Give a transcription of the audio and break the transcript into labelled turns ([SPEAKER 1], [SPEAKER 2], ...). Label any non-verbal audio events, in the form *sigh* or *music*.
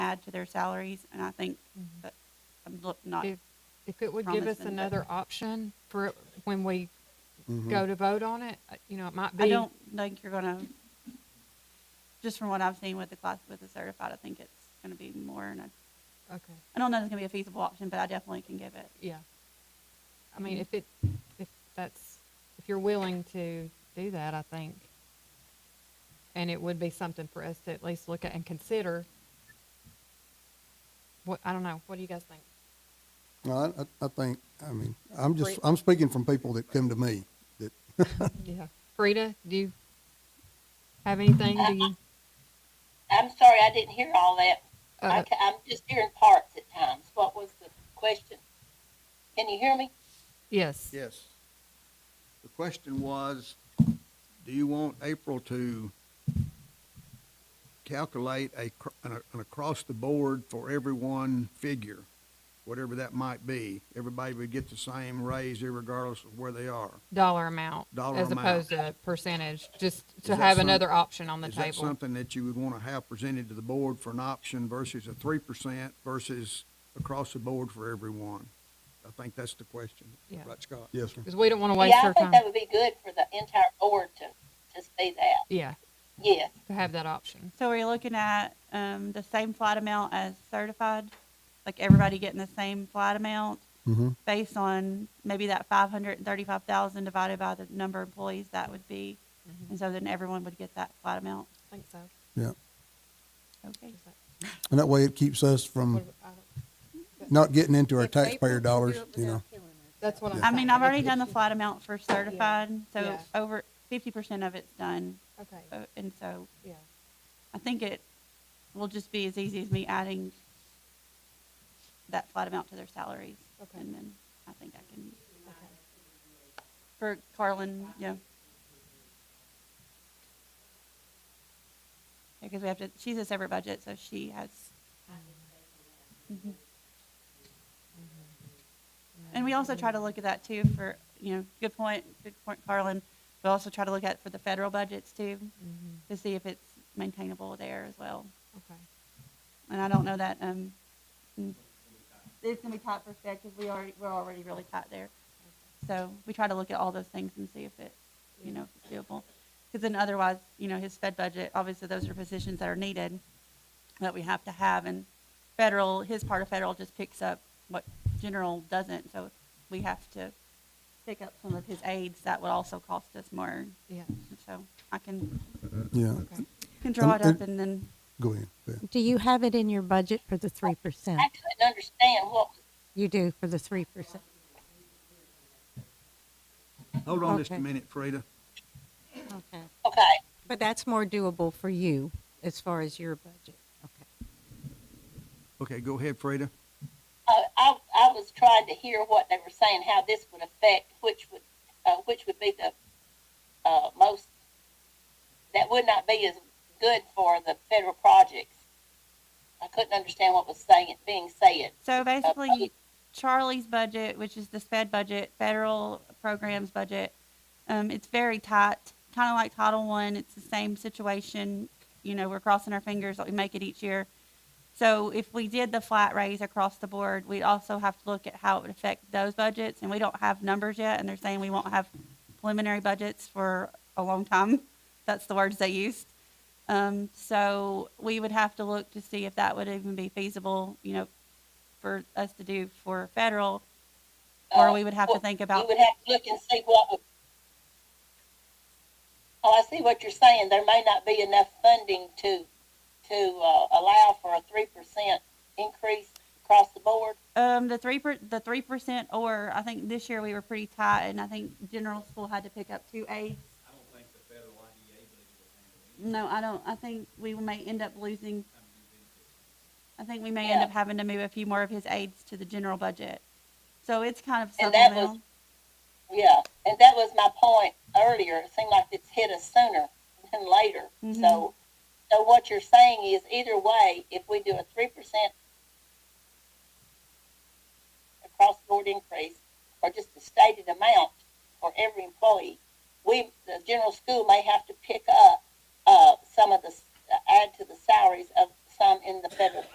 [SPEAKER 1] tied to their salaries, and I think
[SPEAKER 2] Mhm.
[SPEAKER 1] that I'm look not.
[SPEAKER 2] If- If it would give us
[SPEAKER 1] promising, but-
[SPEAKER 2] another option for it when we
[SPEAKER 3] Mhm.
[SPEAKER 2] go to vote on it, uh, you know, it might be.
[SPEAKER 1] I don't think you're gonna. Just from what I've seen with the class with the certified, I think it's gonna be more, and I,
[SPEAKER 2] Okay,
[SPEAKER 1] I don't know if it's gonna be a feasible option, but I definitely can give it.
[SPEAKER 2] yeah. I mean, if it, if that's, if you're willing to do that, I think. And it would be something for us to at least look at and consider. What, I don't know, what do you guys think?
[SPEAKER 3] No, I- I, I think, I mean, I'm just,
[SPEAKER 2] Great.
[SPEAKER 3] I'm speaking from people that come to me, that,
[SPEAKER 2] Yeah. Frida, do you have anything? Do you?
[SPEAKER 4] I'm sorry, I didn't hear all that. I
[SPEAKER 2] uh,
[SPEAKER 4] ca- I'm just hearing parts at times. What was the question? Can you hear me?
[SPEAKER 2] Yes.
[SPEAKER 5] Yes. The question was, do you want April to calculate a, cr- an, an across-the-board for everyone figure, whatever that might be? Everybody would get the same raise regardless of where they are.
[SPEAKER 2] Dollar amount.
[SPEAKER 5] Dollar
[SPEAKER 2] As
[SPEAKER 5] amount.
[SPEAKER 2] opposed to percentage, just to
[SPEAKER 5] that
[SPEAKER 2] have
[SPEAKER 5] some-
[SPEAKER 2] another option on the
[SPEAKER 5] Is that
[SPEAKER 2] table.
[SPEAKER 5] something that you would want to have presented to the board for an option versus a three percent versus across the board for everyone? I think that's the question.
[SPEAKER 2] Yeah.
[SPEAKER 5] Right, Scott?
[SPEAKER 3] yes, sir.
[SPEAKER 2] Because we don't want to waste
[SPEAKER 4] yeah, I
[SPEAKER 2] our
[SPEAKER 4] think
[SPEAKER 2] time.
[SPEAKER 4] that would be good for the entire board to, to see that.
[SPEAKER 2] Yeah,
[SPEAKER 4] Yes.
[SPEAKER 2] to have that option.
[SPEAKER 1] So are you looking at um, the same flight amount as certified? Like everybody getting the same flight amount
[SPEAKER 3] Mm-hmm.
[SPEAKER 1] based on maybe that five hundred and thirty-five thousand divided by the number of employees that would be? And so then everyone would get that flight amount?
[SPEAKER 2] I think so.
[SPEAKER 3] Yeah.
[SPEAKER 1] Okay.
[SPEAKER 3] And that way it keeps us from not getting into our taxpayer dollars, you know.
[SPEAKER 2] That's what I'm.
[SPEAKER 1] I mean,
[SPEAKER 2] saying.
[SPEAKER 1] I've already done the flight amount for certified, so
[SPEAKER 2] Yeah.
[SPEAKER 1] over fifty percent of it's done.
[SPEAKER 2] Okay,
[SPEAKER 1] Uh, And so
[SPEAKER 2] yeah.
[SPEAKER 1] I think it will just be as easy as me adding that flat amount to their salaries.
[SPEAKER 2] Okay.
[SPEAKER 1] And then I think I can, for Carlin, yeah. Because we have to, she's a separate budget, so she has. Mhm. And we also try to look at that too for, you know, good point, good point, Carlin. We also try to look at for the federal budgets too
[SPEAKER 2] Mhm.
[SPEAKER 1] to see if it's maintainable there as well.
[SPEAKER 2] Okay.
[SPEAKER 1] And I don't know that, um, mm, it's gonna be tight for Fed, cause we already, we're already really tight there. So we try to look at all those things and see if it, you know, if it's doable. Cause then otherwise, you know, his Fed budget, obviously those are positions that are needed, that we have to have, and federal, his part of federal just picks up what general doesn't, so we have to pick up some of his aides, that would also cost us more,
[SPEAKER 2] Yeah,
[SPEAKER 1] so I can,
[SPEAKER 3] Yeah,
[SPEAKER 2] okay.
[SPEAKER 1] can draw it up
[SPEAKER 3] and-
[SPEAKER 1] and then
[SPEAKER 3] go ahead. yeah.
[SPEAKER 6] Do you have it in your budget for the three percent?
[SPEAKER 4] I couldn't understand what was,
[SPEAKER 6] You do for the three percent.
[SPEAKER 5] Hold on just a
[SPEAKER 6] Okay.
[SPEAKER 5] minute, Frida.
[SPEAKER 6] Okay.
[SPEAKER 4] okay.
[SPEAKER 6] But that's more doable for you as far as your budget. Okay.
[SPEAKER 5] Okay, go ahead, Frida.
[SPEAKER 4] Uh, I, I was trying to hear what they were saying, how this would affect, which would, uh, which would be the, uh, most, that would not be as good for the federal projects. I couldn't understand what was saying, being said.
[SPEAKER 1] So
[SPEAKER 4] Okay.
[SPEAKER 1] basically, Charlie's budget, which is this Fed budget, federal programs budget, um, it's very tight, kind of like Title One. It's the same situation. You know, we're crossing our fingers that we make it each year. So if we did the flat raise across the board, we'd also have to look at how it would affect those budgets. And we don't have numbers yet, and they're saying we won't have preliminary budgets for a long time. *laughs* That's the words they used. Um, so we would have to look to see if that would even be feasible, you know, for us to do for federal, or
[SPEAKER 4] Uh,
[SPEAKER 1] we would have to
[SPEAKER 4] what-
[SPEAKER 1] think
[SPEAKER 4] You
[SPEAKER 1] about,
[SPEAKER 4] would have to look and see what. would- Oh, I see what you're saying. There may not be enough funding to, to, uh, allow for a three percent increase across the board.
[SPEAKER 1] um, the three per, the three percent, or I think this year we were pretty tight, and I think general school had to pick up two aides. No, I don't, I think we may end up losing, I think we may end
[SPEAKER 4] Yeah.
[SPEAKER 1] up having to move a few more of his aides to the general budget. So it's kind of
[SPEAKER 4] And that was-
[SPEAKER 1] supplemental.
[SPEAKER 4] Yeah, and that was my point earlier. It seemed like it's hit us sooner than later. So, so what you're saying is either way, if we do a three percent across the board increase or just a stated amount for every employee, we, the general school may have to pick up, uh, some of the, s- add to the salaries of some in the federal